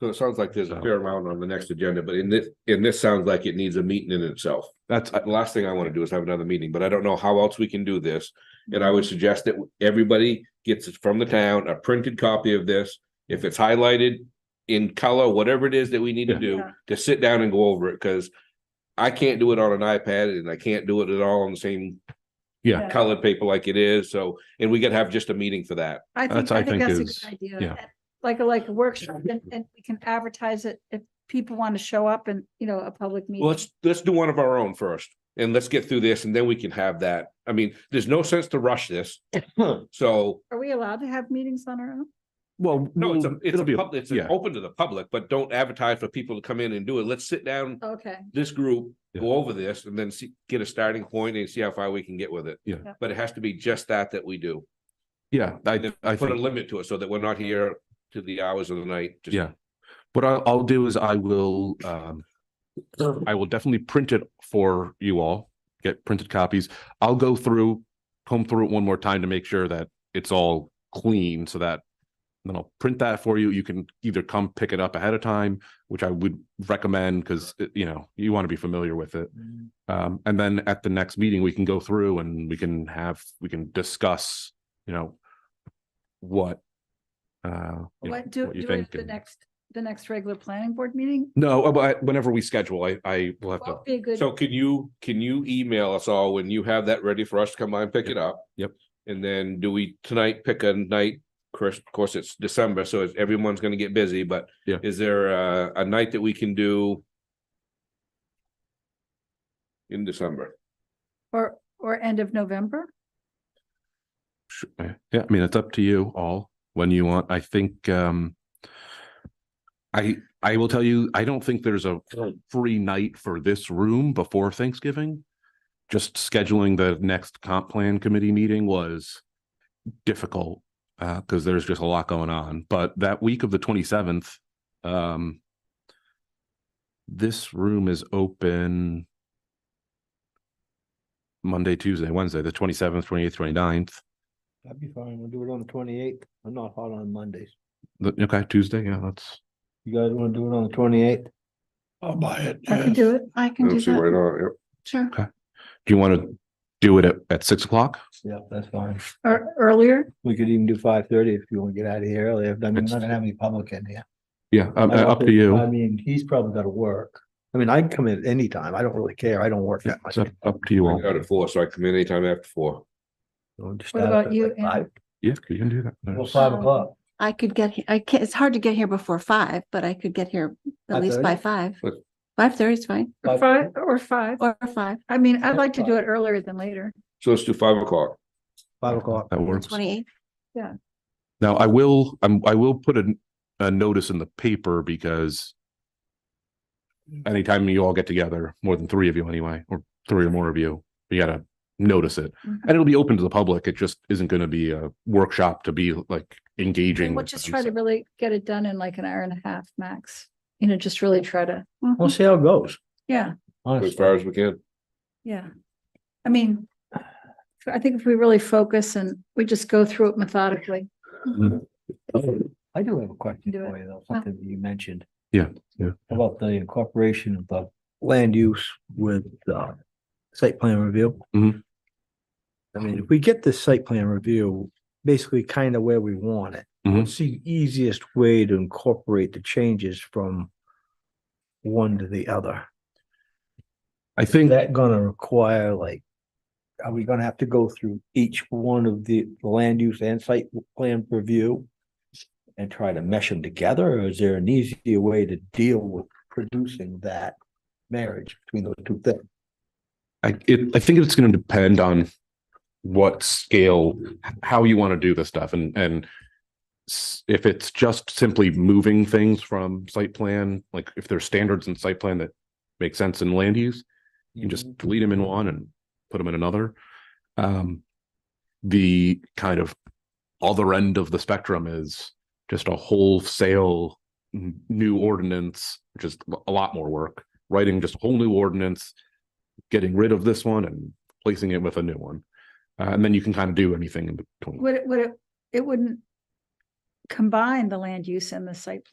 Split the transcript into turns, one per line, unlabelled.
So it sounds like there's a
So-
fair amount on the next agenda, but in this, in this sounds like it needs a meeting in itself.
That's,
Uh, The last thing I want to do is have another meeting, but I don't know how else we can do this. And I would suggest that everybody gets it from the town, a printed copy of this. If it's highlighted in color, whatever it is that we need to
Yeah.
do,
Yeah.
to sit down and go over it, because I can't do it on an iPad and I can't do it at all on the same
yeah,
colored paper like it is. So, and we could have just a meeting for that.
I
That's,
think,
I
I think
think,
that's a
is-
good idea.
yeah.
And Like, a- like a workshop and, and we can advertise it if people want to show up and, you know, a public meeting.
Let's, let's do one of our own first and let's get through this and then we can have that. I mean, there's no sense to rush this. So,
Are we allowed to have meetings on our own?
well.
no, it's a,
we'll-
it's
it'll
a,
be
pub- it's
yeah.
open to the public, but don't advertise for people to come in and do it. Let's sit down,
Okay,
this group,
Yeah.
go over this and then see, get a starting point and see how far we can get with it.
Yeah.
Yeah.
But it has to be just that that we do.
Yeah, I,
And
I
put a
think,
limit to it so that we're not here to the hours of the night. just-
yeah. What I'll, I'll do is I will, um, I will definitely print it for you all, get printed copies. I'll go through, comb through it one more time to make sure that it's all clean so that then I'll print that for you. You can either come pick it up ahead of time, which I would recommend because, you know, you want to be familiar with it. Um, and then at the next meeting, we can go through and we can have, we can discuss, you know, what, uh, you know,
what, do,
what you
do it
think.
at the
and-
next, the next regular planning board meeting?
No, uh, but whenever we schedule, I, I will have to,
Well, Be a good,
So can you, can you email us all when you have that ready for us to come by and pick it up?
Yep.
And then do we tonight pick a night, Chris, of course, it's December, so it's- everyone's gonna get busy, but
Yeah.
is there a, a night that we can do in December?
or, or end of November?
Sure. yeah, I mean, it's up to you all when you want. I think, um, I, I will tell you, I don't think there's a free night for this room before Thanksgiving. Just scheduling the next comp plan committee meeting was difficult uh because there's just a lot going on. But that week of the twenty seventh, um, this room is open Monday, Tuesday, Wednesday, the twenty seventh, twenty eighth, twenty ninth.
That'd be fine. We'll do it on the twenty-eighth. I'm not hot on Mondays.
Okay, Tuesday, yeah, that's
You guys wanna do it on the twenty-eighth? I'll buy it.
I can do it. I can do that.
not, yep.
Sure.
do you want to do it at, at six o'clock?
Yeah, that's fine.
Or earlier?
We could even do five-thirty if you wanna get out of here early. I'm not
It's-
gonna have any public in here.
Yeah, um, uh,
I
up to
think- I
you.
mean, he's probably gotta work. I mean, I can come in anytime. I don't really care. I don't work
Yeah,
that much.
it's up, up to you all.
Out at four, so I come in anytime after four.
So just
What
start
about
at
you,
like
Ann?
five-
Yeah, you can do that.
Well,
There's-
five o'clock.
I could get, he- I can't, it's hard to get here before five, but I could get here at least by five.
What?
Five thirty is fine,
Five-
Five, or five.
or five,
I mean, I'd like to do it earlier than later.
So let's do five o'clock.
Five o'clock.
That works.
twenty-eight.
Now, I will, I'm, I will put a, a notice in the paper because anytime you all get together, more than three of you anyway, or three or more of you, you gotta notice it.
Mhm.
And it'll be open to the public. It just isn't gonna be a workshop to be like engaging.
We'll
with
just
them,
try to
so-
really get it done in like an hour and a half max, you know, just really try to,
We'll see how it goes.
yeah,
As
Honestly,
far as we can.
yeah. I mean, I think if we really focus and we just go through it methodically. Oh.
I do have a question
Do it.
for you though, something that you mentioned.
Yeah, yeah.
About the incorporation of the land use with uh site plan review.
Mhm.
I mean, if we get this site plan review, basically kind of where we want it.
Mhm.
What's the easiest way to incorporate the changes from one to the other?
I think.
Is that gonna require like, are we gonna have to go through each one of the land use and site plan review? And try to mesh them together, or is there an easier way to deal with producing that marriage between those two things?
I it, I think it's going to depend on what scale, h- how you want to do this stuff, and and s- if it's just simply moving things from site plan, like if there's standards in site plan that make sense in land use, you can just delete them in one and put them in another. Um, the kind of other end of the spectrum is just a wholesale n- new ordinance, which is a lot more work. Writing just a whole new ordinance, getting rid of this one and placing it with a new one. Uh, and then you can kind of do anything in between.
Would it, would it, it wouldn't combine the land use and the site